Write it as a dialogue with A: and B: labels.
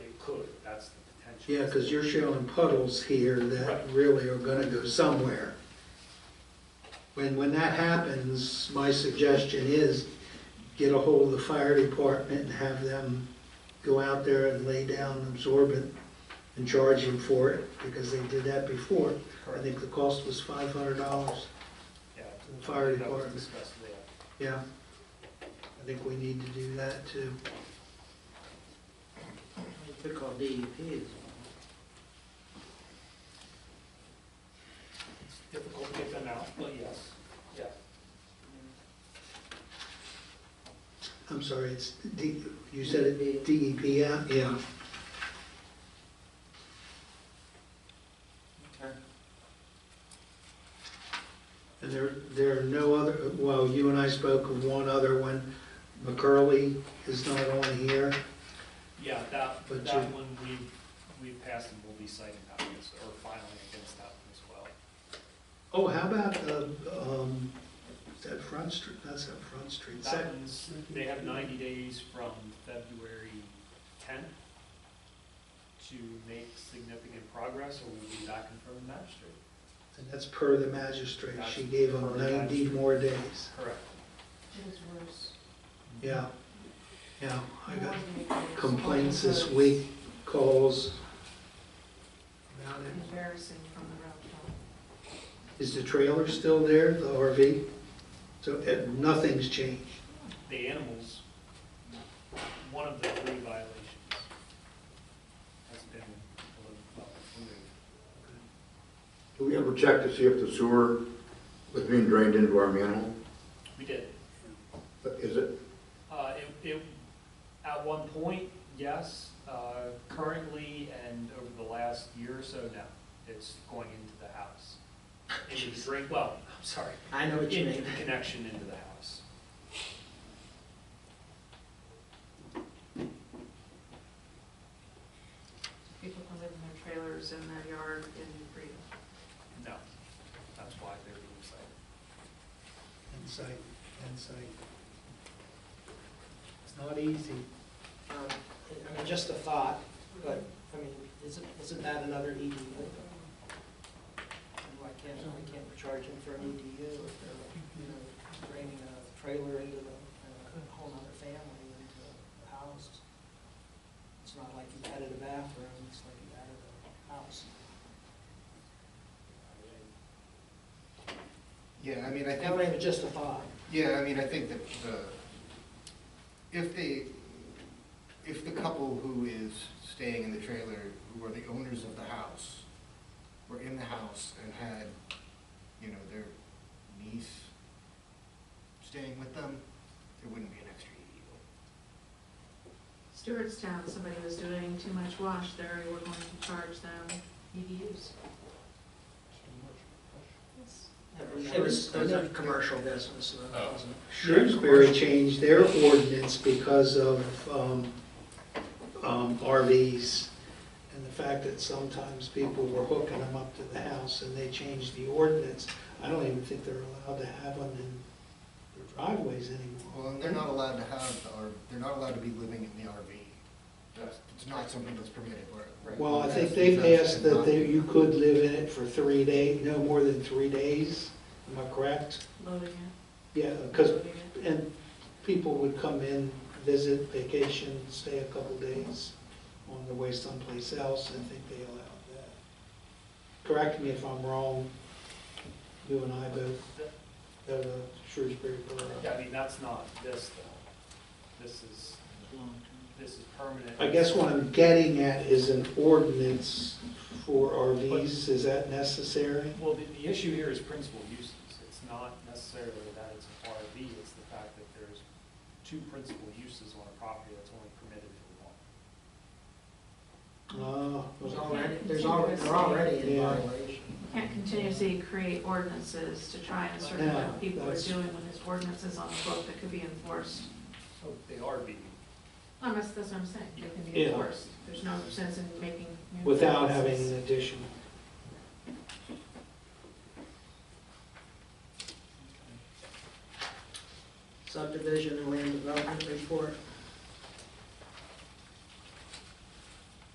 A: that's the potential.
B: Yeah, because you're showing puddles here that
A: Right.
B: really are gonna go somewhere. When, when that happens, my suggestion is get a hold of the fire department and have them go out there and lay down absorbent and charge them for it, because they did that before. I
A: Correct.
B: think the cost was five hundred dollars.
A: Yeah,
B: the fire
A: that was
B: department.
A: discussed there.
B: Yeah, I think we need to do that too.
C: They call DEP is
A: It's difficult to get them out, but yes, yeah.
B: I'm sorry, it's, D- you said it, DEP, yeah? Yeah.
C: Okay.
B: And there, there are no other, well, you and I spoke of one other one. McCurley is not on here.
A: Yeah, that,
B: But
A: that
B: you-
A: one we, we passed and will be citing that one, as- or filing against that one as well.
B: Oh, how about, uh, um, is that Front Street? That's not Front Street.
A: That
B: Second,
A: one's, they have ninety days from February tenth to make significant progress, or we'll be back in front of the magistrate.
B: and that's per the magistrate. She gave them ninety more days.
A: Correct.
D: It was worse.
B: Yeah, yeah. I got
D: Coordinators,
B: complaints this
D: all
B: week, calls about
D: those
B: it.
D: Embarrassing from the route.
B: Is the trailer still there, the RV? So, eh, nothing's changed.
A: The animals, one of the three violations has been, well, removed.
E: Do we ever check to see if the sewer was being drained into our manhole?
A: We did.
E: Is it?
A: Uh, it, it, at one point, yes, uh, currently and over the last year or so, no, it's going into the house. Into the drain, well, I'm sorry,
C: I know what you
A: into
C: mean.
A: the connection into the house.
D: People can live in their trailers in their yard in freedom.
A: No, that's why they're being cited.
B: Insight, insight. It's not easy.
C: Um, I mean, just a thought, but, I mean, isn't, isn't that another E EDU? Why can't, why can't we charge them for an EDU if they're, you know, bringing a trailer into the, uh, a whole nother family into the house? It's not like you added a bathroom, it's like you added a house.
F: Yeah, I mean, I
C: That
F: think,
C: may be just a thought.
F: yeah, I mean, I think that the, if they, if the couple who is staying in the trailer, who are the owners of the house, were in the house and had, you know, their niece staying with them, there wouldn't be an extra EDU.
D: Stewartstown, somebody was doing too much wash there, we were going to charge them E EDUs.
C: It was, it was a commercial business, so it wasn't.
B: Shrewsbury changed their ordinance because of um, um, RVs and the fact that sometimes people were hooking them up to the house and they changed the ordinance. I don't even think they're allowed to have them in their driveways anymore.
F: Well, and they're not allowed to have, the R they're not allowed to be living in the RV. That's, it's not something that's permitted where.
B: Well, I think they passed that they- you could live in it for three days, no more than three days. Am I correct?
D: Loading it.
B: Yeah, because
D: loading it.
B: And people would come in, visit, vacation, stay a couple days on their way someplace else, I think they allowed that. Correct me if I'm wrong, you and I both, have a Shrewsbury Borough.
A: Yeah, I mean, that's not this though. This is, this is permanent.
B: I guess what I'm getting at is an ordinance for RVs, is that necessary?
A: Well, the, the issue here is principal uses. It's not necessarily that it's an RV, it's the fact that there's two principal uses on a property that's only permitted for one.
B: Ah,
C: There's
B: okay.
C: already, there's already, they're already in
B: Yeah.
C: violation.
D: Can't continuously create ordinances to try and circumvent
B: Yeah,
D: what people are
B: that's-
D: doing when there's ordinances on the book that could be enforced.
A: So They are being
D: No, that's, that's what I'm saying, they can be
B: Yeah.
D: enforced. There's no sense in making. new
B: without having
D: ordinances.
B: an addition.
C: Subdivision and land development report.